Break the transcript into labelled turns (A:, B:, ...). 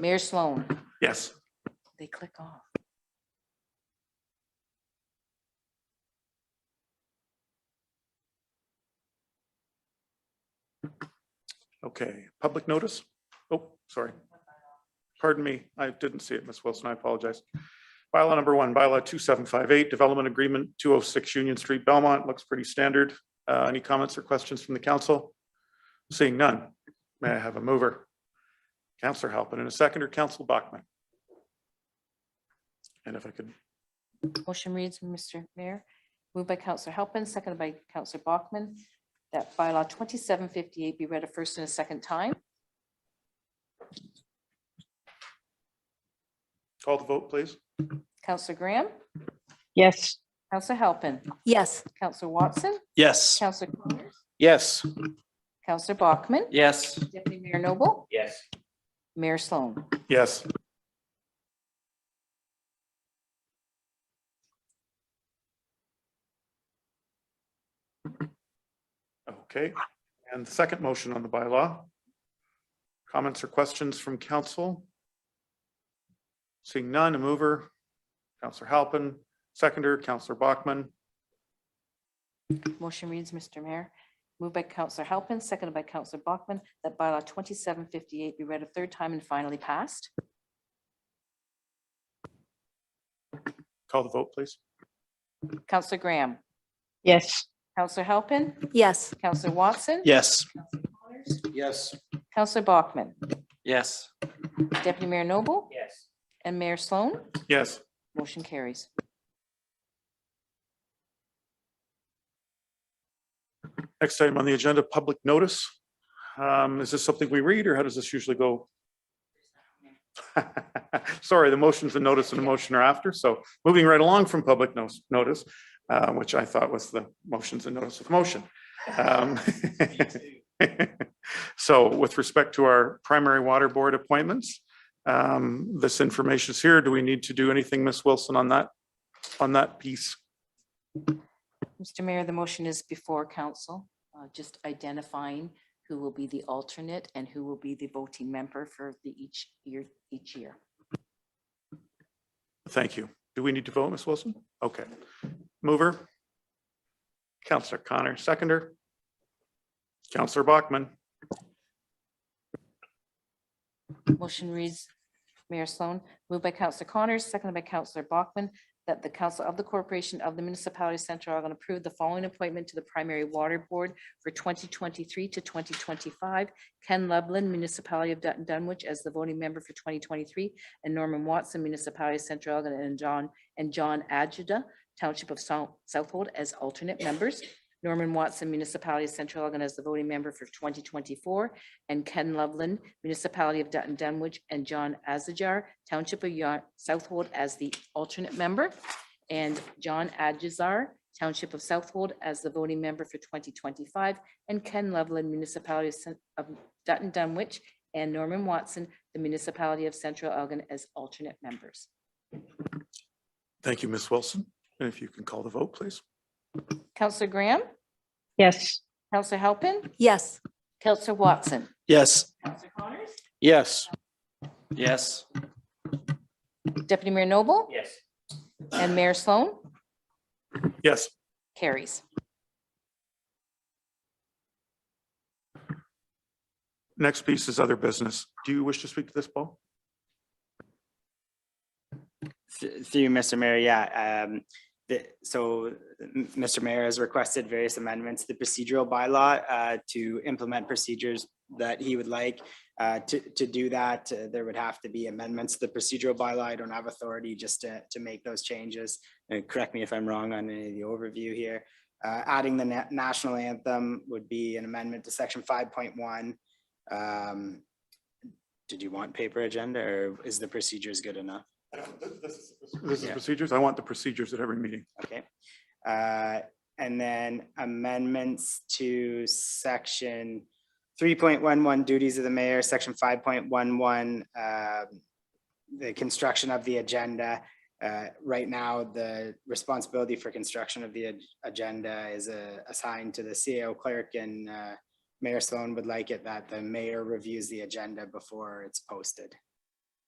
A: Mayor Sloan,
B: Yes.
A: they click off.
B: Okay, public notice? Oh, sorry. Pardon me, I didn't see it, Ms. Wilson, I apologize. Bylaw number one, bylaw 2758, Development Agreement 206 Union Street, Belmont, looks pretty standard. Uh, Any comments or questions from the council? Seeing none, may I have a mover? Counselor Halpin and a second or Council Bachman? And if I could,
A: Motion reads, Mr. Mayor, moved by Counselor Halpin, seconded by Counselor Bachman, that bylaw twenty-seven fifty-eight be read a first and a second time.
B: call the vote, please.
A: Counselor Graham,
C: Yes.
A: Counselor Halpin,
C: Yes.
A: Counselor Watson,
D: Yes.
A: Counselor Conyers,
D: Yes.
A: Counselor Bachman,
D: Yes.
A: Deputy Mayor Noble,
D: Yes.
A: Mayor Sloan.
B: Yes. Okay, and the second motion on the bylaw. Comments or questions from council? Seeing none, a mover, Counselor Halpin, seconder, Counselor Bachman.
A: Motion reads, Mr. Mayor, moved by Counselor Halpin, seconded by Counselor Bachman, that bylaw twenty-seven fifty-eight be read a third time and finally passed.
B: Call the vote, please.
A: Counselor Graham,
C: Yes.
A: Counselor Halpin,
C: Yes.
A: Counselor Watson.
D: Yes.
A: Connors,
D: Yes.
A: Counselor Bachman,
D: Yes.
A: Deputy Mayor Noble
D: Yes.
A: and Mayor Sloan,
B: Yes.
A: motion carries.
B: Next item on the agenda, public notice. Um, Is this something we read or how does this usually go? Sorry, the motions and notice and the motion are after. So moving right along from public nos- notice, uh, which I thought was the motions and notice of motion. Um, So with respect to our primary water board appointments, um, this information is here. Do we need to do anything, Ms. Wilson, on that, on that piece?
A: Mr. Mayor, the motion is before council, uh, just identifying who will be the alternate and who will be the voting member for the each year, each year.
B: Thank you. Do we need to vote, Ms. Wilson? Okay. Mover? Counselor Connor, seconder? Counselor Bachman?
A: Motion reads, Mayor Sloan, moved by Counselor Connors, seconded by Counselor Bachman, that the council of the corporation of the municipality of Central Argon approve the following appointment to the primary water board for twenty twenty-three to twenty twenty-five. Ken Lublin, municipality of Dun- Dunwich, as the voting member for twenty twenty-three, and Norman Watson, municipality of Central Argon, and John, and John Adjuda, township of Sou- Southhold, as alternate members. Norman Watson, municipality of Central Argon, as the voting member for twenty twenty-four, and Ken Loveland, Municipality of Dutton Dunwich, and John Azajar, Township of Yon- Southwold as the alternate member, and John Adjazar, Township of Southwold as the voting member for 2025, and Ken Loveland, Municipality of Cen- of Dutton Dunwich, and Norman Watson, the Municipality of Central Elgin as alternate members.
B: Thank you, Ms. Wilson. And if you can call the vote, please.
A: Counselor Graham,
C: Yes.
A: Counselor Halpin,
C: Yes.
A: Counselor Watson.
D: Yes.
A: Counselor Connors.
D: Yes. Yes.
A: Deputy Mayor Noble
D: Yes.
A: and Mayor Sloan
B: Yes.
A: carries.
B: Next piece is other business. Do you wish to speak to this, Paul?
E: Th- Through you, Mr. Mayor, yeah. um, the- So m- Mr. Mayor has requested various amendments to the procedural bylaw uh, to implement procedures that he would like. Uh, To, to do that, uh, there would have to be amendments to the procedural bylaw. I don't have authority just to, to make those changes. And correct me if I'm wrong on any of the overview here. Uh, Adding the na- national anthem would be an amendment to section 5.1. Um, Did you want paper agenda or is the procedures good enough?
B: This is
E: Yeah.
B: procedures. I want the procedures at every meeting.
E: Okay. Uh, And then amendments to section three point one one duties of the mayor, section five point one one, um, the construction of the agenda. Uh, Right now, the responsibility for construction of the ag- agenda is uh, assigned to the CEO clerk and uh, Mayor Sloan would like it that the mayor reviews the agenda before it's posted.